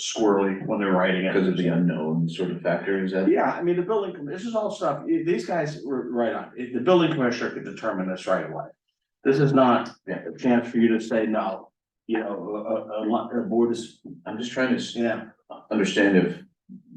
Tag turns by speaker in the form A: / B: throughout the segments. A: squirrely when they're writing it.
B: because of the unknown sort of factor, is that?
A: Yeah, I mean, the building, commi- this is all stuff, i- these guys were right on, If the building commissioner could determine this right away. This is not a chance for you to say no, you know, a, a- a, lot- a board is,
B: I'm just trying to s-
A: yeah,
B: understand if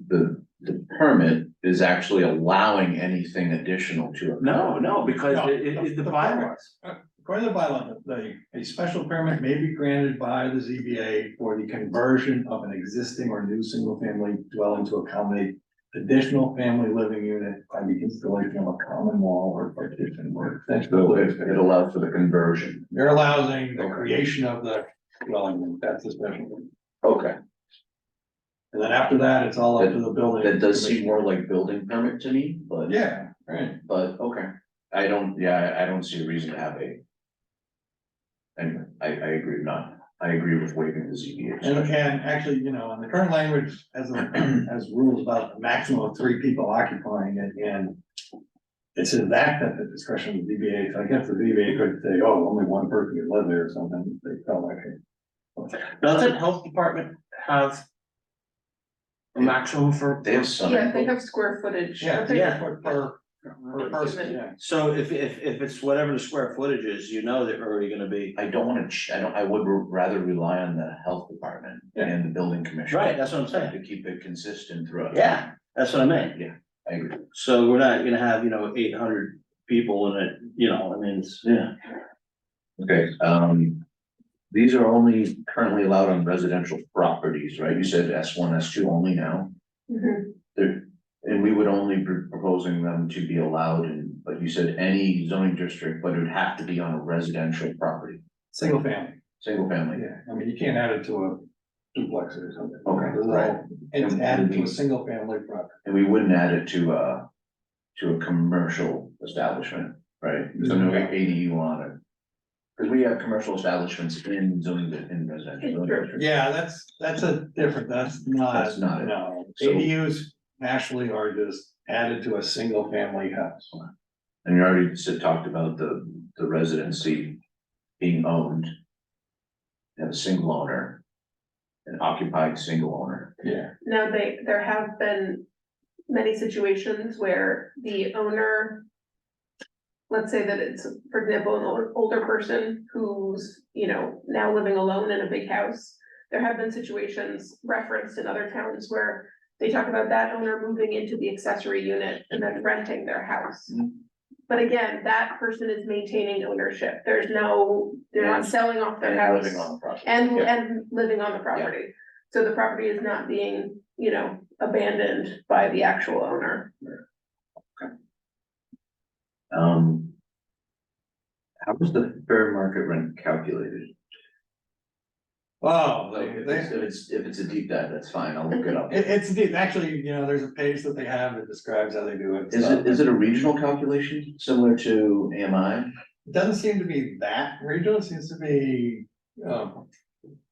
B: the, the permit is actually allowing anything additional to it.
A: no, no, because
C: No,
A: it, it,
C: the-
A: the
C: the
A: bylaws.
C: According to the bylaw, the, a special permit may be granted by the ZBA for the conversion of an existing or new single-family dwelling to accommodate additional family living unit by the installation of a common wall or partition or extension. of
B: So it,
C: living
B: it
C: space.
B: allows for the conversion.
C: You're allowing the creation of the dwelling, that's the special. permit.
B: Okay,
C: And then after that, it's all up to the building.
B: that does seem more like building permit to me, but.
C: Yeah, right.
B: But, okay, I don't, yeah, I, I don't see a reason to have a. Anyway, I, I agree not, I agree with waiving the ZBA.
C: And
B: special.
C: and actually, you know, in the current language, as, a- as rules about a maximum of three people occupying it, and it's in that that the discretion of the ZBA, so I guess the ZBA could say, oh, only one person can live there or something, if they felt like it.
A: Doesn't health department have a maximum for?
B: They have some.
D: Yeah, they have square footage.
C: Yeah,
D: but they-
C: yeah, for, per, per person,
D: Human.
C: yeah.
A: So if, if, if it's whatever the square footage is, you know they're already gonna be,
B: I don't wanna, ch- I don't, I would rather rely on the health department
C: Yeah.
B: and the building commissioner.
A: right, that's what I'm saying,
B: To keep it consistent throughout.
A: yeah, that's what I mean.
B: I agree.
A: So we're not gonna have, you know, eight hundred people in it, you know, I mean, it's, yeah.
B: Okay, um, these are only currently allowed on residential properties, right? You said S one, S two only now.
D: Mhm.
B: There, and we would only be proposing them to be allowed in, but you said any zoning district, but it would have to be on a residential property,
C: Single family,
B: single family.
C: yeah, I mean, you can't add it to a duplex or something.
B: Okay,
C: This is all-
B: right.
C: It's added to a single family property.
B: And we wouldn't add it to uh to a commercial establishment, right? So no ADU on it. Cause we have commercial establishments in zoning, di- in residential. districts.
C: Yeah, that's, that's a different, that's not.
B: That's not it.
C: No,
B: So-
C: ADUs nationally are just added to a single family house.
B: And you already said, talked about the, the residency being owned. And a single owner. An occupied single owner.
C: Yeah.
D: Now, they, there have been many situations where the owner. Let's say that it's, for example, an older, older person who's, you know, now living alone in a big house. There have been situations referenced in other towns where they talk about that owner moving into the accessory unit and then renting their house. But again, that person is maintaining ownership. There's no, they're not
B: And-
D: selling off their
B: And
D: house.
B: living on the property.
D: And,
B: Yeah.
D: and living on the property. So the property is not being, you know, abandoned by the actual owner.
B: Um. How was the fair market rent calculated?
C: Wow,
B: Like,
C: Oh, they,
B: if
C: they,
B: it's, if it's, if it's a deep dive, that's fine, I'll look it up.
C: it- it's deep, actually, you know, there's a page that they have that describes how they do it.
B: Is
C: so-
B: it, is it a regional calculation similar to AMI?
C: It Doesn't seem to be that regional, it seems to be, um,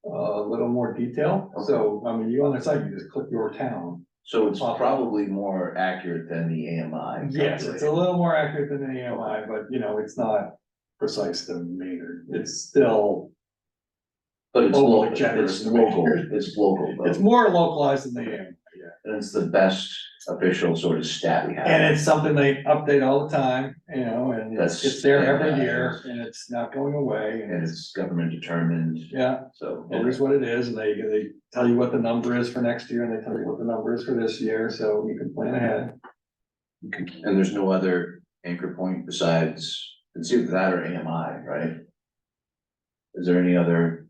C: a little more detail. So, I mean, you on their site, you just click your town.
B: So it's probably more accurate than the AMI.
C: Yes, it's a
B: calculation.
C: little more accurate than the AMI, but you know, it's not precise to meter. It's still
B: But it's
C: overly
B: local,
C: generous
B: it's
C: to me.
B: local, it's local,
C: It's
B: though.
C: more localized than they am,
B: and it's the best official sort of stat we have.
C: and it's something they update all the time, you know, and it's,
B: That's-
C: it's there every year, and it's not going away, and
B: And
C: it's,
B: it's government determined,
C: yeah,
B: so.
C: it is what it is, and they, they tell you what the number is for next year, and they tell you what the number is for this year, so you can plan ahead.
B: And there's no other anchor point besides, it's either that or AMI, right? Is there any other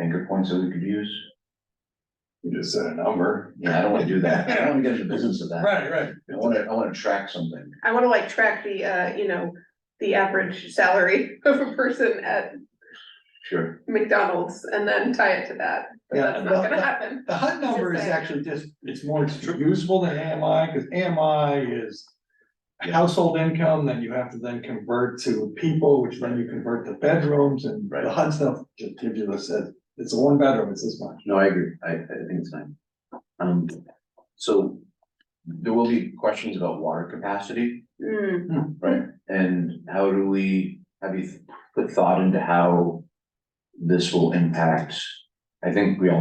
B: anchor points that we could use?
C: You just said a number.
B: Yeah, I don't wanna do that, I don't wanna get in the business of that.
C: Right, right.
B: I wanna, I wanna track something.
D: I wanna like track the, uh, you know, the average salary of a person at
B: Sure.
D: McDonald's and then tie it to that. But
C: Yeah,
D: that's
C: well,
D: not gonna
C: that-
D: happen.
C: The HUD number is
D: Just saying.
C: actually just, it's more useful than AMI, because AMI is household income, then you have to then convert to people, which then you convert to bedrooms, and
B: Right.
C: the HUD stuff just gives you the set, it's a one bedroom, it's this much.
B: No, I agree, I, I think it's fine. Um, so there will be questions about water capacity,
D: Mm,
B: right? And how do we, have you put thought into how this will impact? I think we all